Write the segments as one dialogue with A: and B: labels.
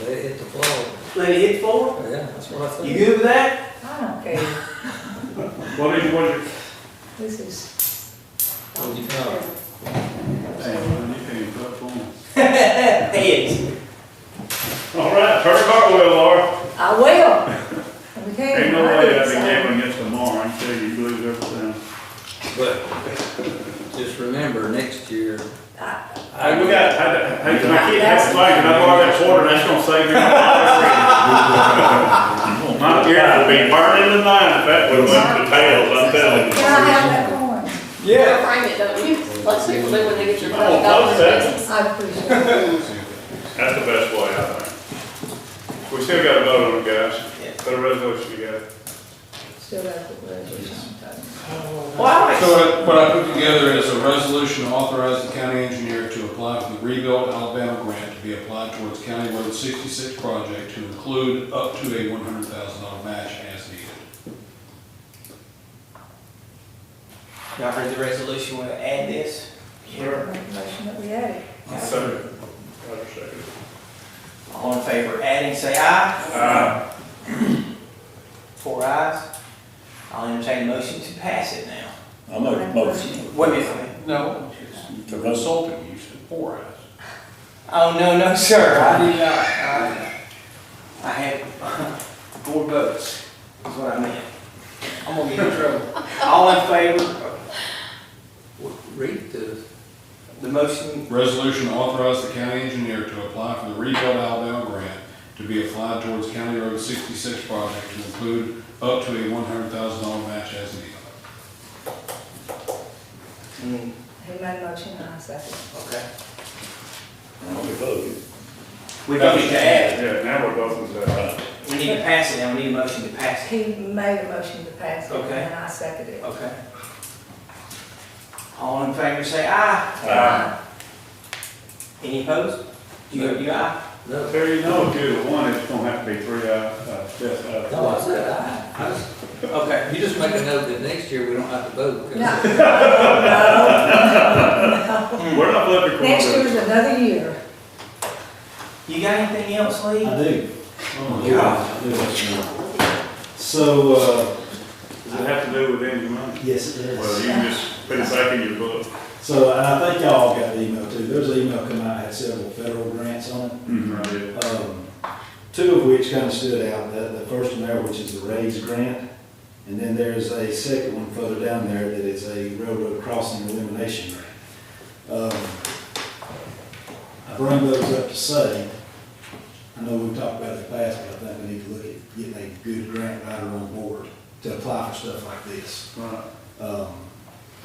A: Let it hit the floor.
B: Let it hit four?
A: Yeah, that's what I
B: You
A: think.
B: good with that?
C: I don't care.
D: What is, what is,
C: This is.
A: What do you know?
B: Heads.
D: all right, turn the cartwheel, Laura.
C: I will. Okay.
D: Ain't no way I'd be gambling against tomorrow, I tell you, you lose everything.
A: But just remember, next year,
C: Ah,
D: Hey, we got, I, I, I can't have a flag, and I borrow that quarter, that's gonna save me. My ears will be burning tonight if that would went to tails, I'm telling you.
C: Can I have that coin?
A: yeah,
E: Frame it, don't you? Let people do when they get your
D: I
E: money.
D: won't close that.
C: I appreciate it.
D: That's the best way, I think. We still gotta vote on it,
B: Yeah.
D: guys. Put a resolution together.
C: Still got the resolution.
B: Well, I
F: So
B: don't,
F: what- what I put together is a resolution to authorize the county engineer to apply for the Rebuild Alabama grant to be applied towards County Road sixty-six project to include up to a one hundred thousand dollar match as needed.
B: y'all heard the resolution, we'll add this.
D: Sure.
C: Make a motion that we had it.
D: Second. Have a second.
B: All in favor of adding, say aye.
D: Uh,
B: Four ayes. I'll entertain a motion to pass it now.
G: I make a motion
B: Wait a minute.
F: No.
G: to Russell.
F: Consulting, you said four hours.
B: Oh, no, no, sir, I did not. I- I have four votes, is what I meant. I'm gonna get in trouble. All in favor,
A: read the
B: the motion,
F: Resolution to authorize the county engineer to apply for the Rebuild Alabama grant to be applied towards County Road sixty-six project to include up to a one hundred thousand dollar match as needed.
B: mm,
C: He made a motion, I second.
B: okay.
G: I'll be voting.
B: We don't need to add,
D: yeah, now we're both in second.
B: we need to pass it, now we need a motion to pass it.
C: He made a motion to pass it,
B: Okay.
C: and I seconded it.
B: Okay. All in favor, say aye.
C: Aye.
B: Any opposed? You, you aye?
A: No,
D: There you know, two to one, it's gonna have to be three, uh, uh, yes, uh.
A: no, I said, I, I just-
B: Okay.
A: you just make a note that next year we don't have to vote. 'cause-
C: No. No.
D: We're not looking for.
C: Next year's another year.
B: You got anything else, Lee?
H: I do. Oh,
B: Yeah.
H: I do, actually. So, uh,
D: Does it have to do with any money?
H: yes, it
D: Well,
H: is.
D: you can just put it back in your book.
H: So, and I think y'all got the email too. There's an email come out, had several federal grants on it.
D: Right, yeah.
H: Um, Two of which kind of stood out, the, the first one there, which is the raise grant. And then there's a second one further down there that is a railroad crossing elimination grant. Um, I bring those up to say, I know we've talked about it in the past, but I think we need to look at getting a good grant writer on board to apply for stuff like this.
D: Right.
H: Um,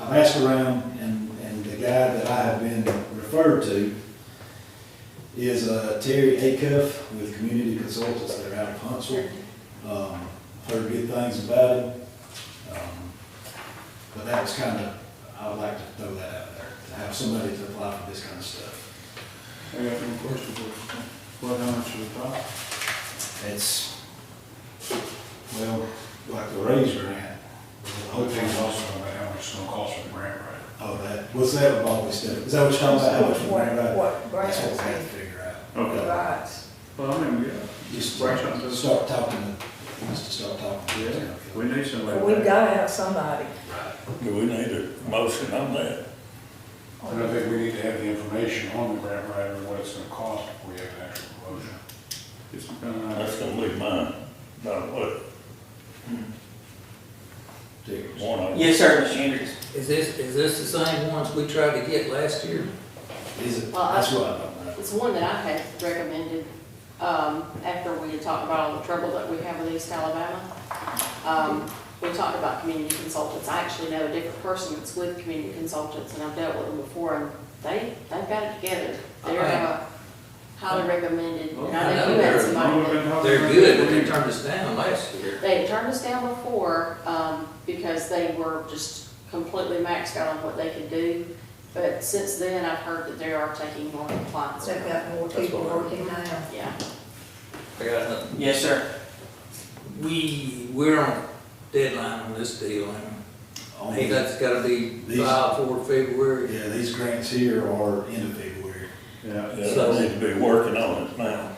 H: I've asked around, and, and the guy that I have been referred to is uh, Terry Acuff with Community Consultants that are out of Huntsville. Um, Heard good things about it. Um, But that was kind of, I would like to throw that out there, to have somebody to apply for this kind of stuff.
D: I got one question for you. What, how much would it cost?
H: It's, well, like the raise grant. the whole
F: Hopefully,
H: thing
F: it's
H: also,
F: also about how much it's gonna cost for the grant writer.
H: oh, that, what's that about all this stuff? Is that what you're talking about, how much we ran out?
C: What, what
H: That's what we have to
C: grants?
H: figure out.
D: Okay.
C: Rights.
D: Well, I mean,
H: Just
D: Right, I'm just-
H: start talking, to- just to start talking.
D: yeah,
H: to
D: yeah,
H: them.
D: we need somebody.
C: We've gotta have somebody.
G: Do we need a motion on that?
F: And I think we need to have the information on the grant writer, and what it's gonna cost before we have an actual motion.
D: It's uh, kind of,
G: That's gonna leave mine, not what,
H: Tickets.
G: one of them.
B: Yes, sir, Mr. Hendricks.
A: Is this, is this the same ones we tried to get last year?
H: Is it,
E: Well, I-
H: that's what I don't know.
E: It's one that I had recommended, um, after we had talked about all the trouble that we have with East Alabama. Um, we talked about community consultants. I actually know a different person that's with community consultants, and I've dealt with them before, and they, they've got it together. They're uh, highly recommended, and I know you had somebody that-
A: They're good, but they turned us down last year.
E: They had turned us down before, um, because they were just completely maxed out on what they could do. But since then, I've heard that they are taking more clients.
C: They've got more
A: That's
C: people
A: what I-
C: working now.
E: Yeah.
A: I got nothing.
B: Yes, sir.
A: We, we're on deadline on this deal, and I
H: Only-
A: think that's gotta be
H: These-
A: filed for February.
H: Yeah, these grants here are end of February.
D: Yeah,
G: Yeah, they need to be working on it now.